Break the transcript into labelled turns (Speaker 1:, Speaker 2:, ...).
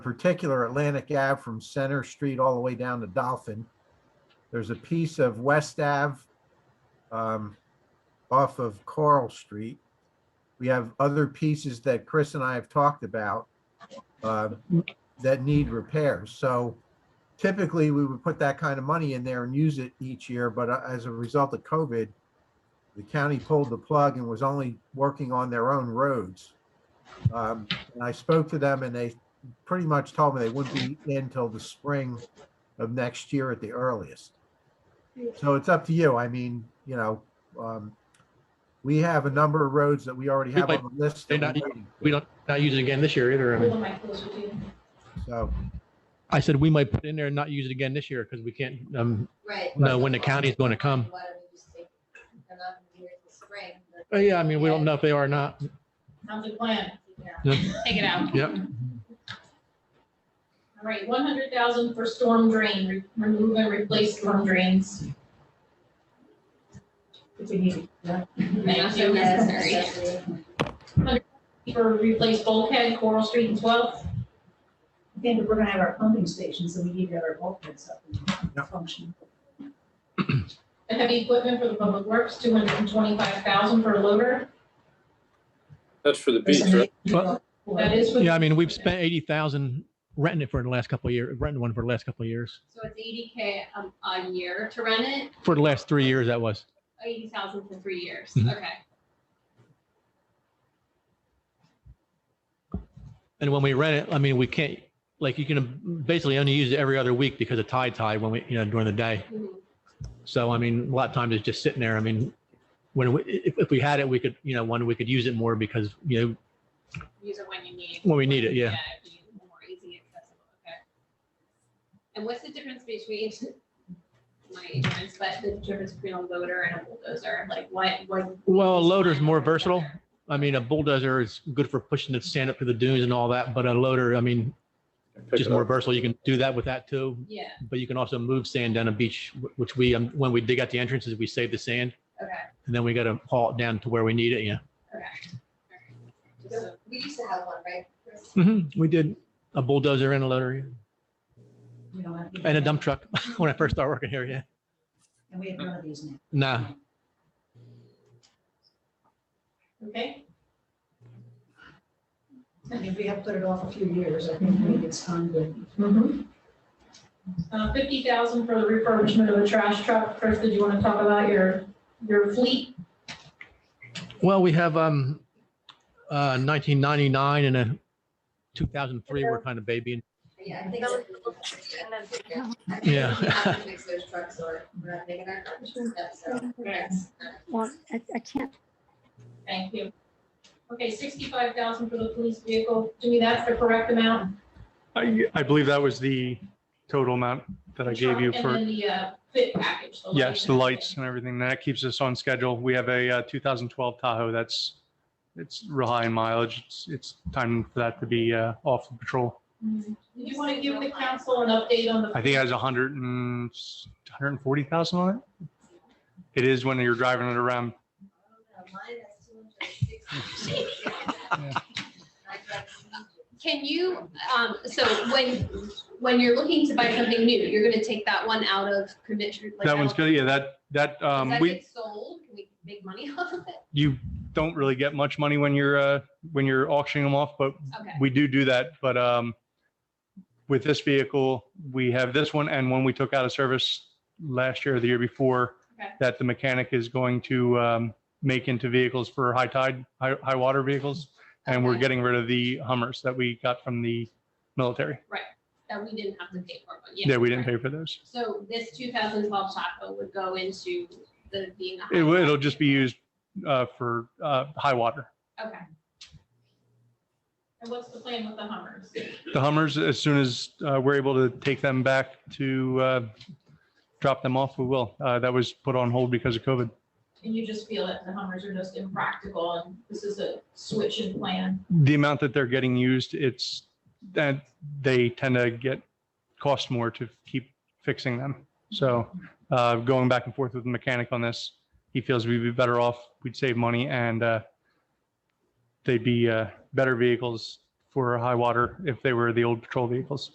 Speaker 1: particular Atlantic Ave from Center Street all the way down to Dolphin. There's a piece of West Ave um, off of Coral Street. We have other pieces that Chris and I have talked about uh, that need repairs. So typically, we would put that kind of money in there and use it each year, but uh, as a result of COVID, the county pulled the plug and was only working on their own roads. Um, And I spoke to them and they pretty much told me they wouldn't be in till the spring of next year at the earliest. So it's up to you. I mean, you know, um, we have a number of roads that we already have on the list. that
Speaker 2: They're not-
Speaker 1: we're waiting for.
Speaker 2: We don't, not use it again this year either. I mean,
Speaker 1: So,
Speaker 2: I said we might put in there and not use it again this year because we can't, um,
Speaker 3: Right.
Speaker 2: know when the county's going to come.
Speaker 3: Why don't we just take- they're not gonna be here till spring, but
Speaker 2: oh, yeah, I mean, we don't know if they are or not.
Speaker 4: Sounds like a plan.
Speaker 2: Yeah.
Speaker 4: Take it out.
Speaker 2: Yep.
Speaker 4: All right, one hundred thousand for storm drain, re- remove and replace storm drains. If we need it, yeah.
Speaker 3: Thank you,
Speaker 4: Yes,
Speaker 3: necessary.
Speaker 4: For replace bulkhead, Coral Street and Twelfth.
Speaker 5: I think if we're gonna have our pumping station, so we need to have our bulkheads up
Speaker 1: Yeah.
Speaker 5: and function.
Speaker 4: The heavy equipment for the public works, two hundred and twenty-five thousand for a loader.
Speaker 6: That's for the beach, right?
Speaker 2: Well-
Speaker 4: That is what.
Speaker 2: Yeah, I mean, we've spent eighty thousand renting it for the last couple of years, renting one for the last couple of years.
Speaker 3: So it's eighty K a, a year to rent it,
Speaker 2: For the last three years, that was.
Speaker 3: eighty thousand for three years,
Speaker 2: Mhm.
Speaker 3: okay.
Speaker 2: And when we rent it, I mean, we can't, like, you can basically only use it every other week because of tide tide when we, you know, during the day.
Speaker 3: Mhm.
Speaker 2: So I mean, a lot of times it's just sitting there. I mean, when we, if, if we had it, we could, you know, one, we could use it more because, you know,
Speaker 3: Use it when you need.
Speaker 2: When we need it, yeah.
Speaker 3: it'd be More easy accessible, okay. And what's the difference between, my ignorance, but the difference between a loader and a bulldozer, like what, what?
Speaker 2: well, a loader's more versatile. I mean, a bulldozer is good for pushing the sand up through the dunes and all that, but a loader, I mean,
Speaker 6: Pick
Speaker 2: just
Speaker 6: it
Speaker 2: more
Speaker 6: up.
Speaker 2: versatile. You can do that with that too.
Speaker 3: Yeah,
Speaker 2: But you can also move sand down a beach, wh- which we, um, when we dig out the entrances, we save the sand
Speaker 3: okay.
Speaker 2: and then we got to haul it down to where we need it. Yeah.
Speaker 3: Just so-
Speaker 7: We used to have one, right? Chris?
Speaker 2: Mhm. We did a bulldozer and a loader yeah.
Speaker 5: We don't have-
Speaker 2: and a dump truck when I first started working here. Yeah.
Speaker 5: And we have none of these now.
Speaker 2: Nah.
Speaker 4: Okay,
Speaker 5: I mean, we have put it off a few years, I think maybe it's time to.
Speaker 4: Mm-hmm. uh, fifty thousand for the refurbishment of the trash truck. Chris, did you want to talk about your, your fleet?
Speaker 2: Well, we have um, uh, 1999 and a 2003 were kind of babying.
Speaker 7: Yeah, I think.
Speaker 3: That
Speaker 7: so.
Speaker 2: Yeah.
Speaker 7: We have to Fix those trucks or we're not making our garbage stuff, so that's not
Speaker 8: Well, I, I can't
Speaker 4: Thank you. Okay, sixty-five thousand for the police vehicle. To me, that's the correct amount.
Speaker 9: I, I believe that was the total amount that I gave you
Speaker 4: And
Speaker 9: for,
Speaker 4: then the uh, fit package. the
Speaker 9: yes, the
Speaker 4: lighting.
Speaker 9: lights and everything. That keeps us on schedule. We have a uh, 2012 Tahoe that's, it's real high in mileage. It's, it's time for that to be uh, off the patrol.
Speaker 4: Mhm. Do you want to give the council an update on the?
Speaker 9: I think it has 100 and, 140,000 on it. It is when you're driving it around.
Speaker 3: Can you, um, so when, when you're looking to buy something new, you're gonna take that one out of commission? like,
Speaker 9: That one's
Speaker 3: out-
Speaker 9: good. Yeah, that, that,
Speaker 3: Does
Speaker 9: um,
Speaker 3: that
Speaker 9: we,
Speaker 3: get sold? Can we make money off of it?
Speaker 9: you don't really get much money when you're, uh, when you're auctioning them off, but
Speaker 3: Okay,
Speaker 9: we do do that, but um, with this vehicle, we have this one and one we took out of service last year or the year before
Speaker 3: Okay.
Speaker 9: that the mechanic is going to um, make into vehicles for high tide, high, high water vehicles. And we're
Speaker 3: Okay.
Speaker 9: getting rid of the Hummers that we got from the military.
Speaker 3: that we didn't have to pay for one.
Speaker 9: Yeah, we didn't pay for those.
Speaker 3: So this two thousand twelve Tahoe would go into the being.
Speaker 9: It, will- it'll just be used uh, for uh, high water.
Speaker 3: Okay,
Speaker 4: And what's the plan with the Hummers?
Speaker 9: The Hummers, as soon as uh, we're able to take them back to uh, drop them off, we will. Uh, That was put on hold because of COVID.
Speaker 4: And you just feel that the Hummers are just impractical and this is a switch in plan?
Speaker 9: the amount that they're getting used, it's that they tend to get cost more to keep fixing them. So uh, going back and forth with the mechanic on this, he feels we'd be better off, we'd save money and uh, they'd be uh, better vehicles for a high water if they were the old patrol vehicles.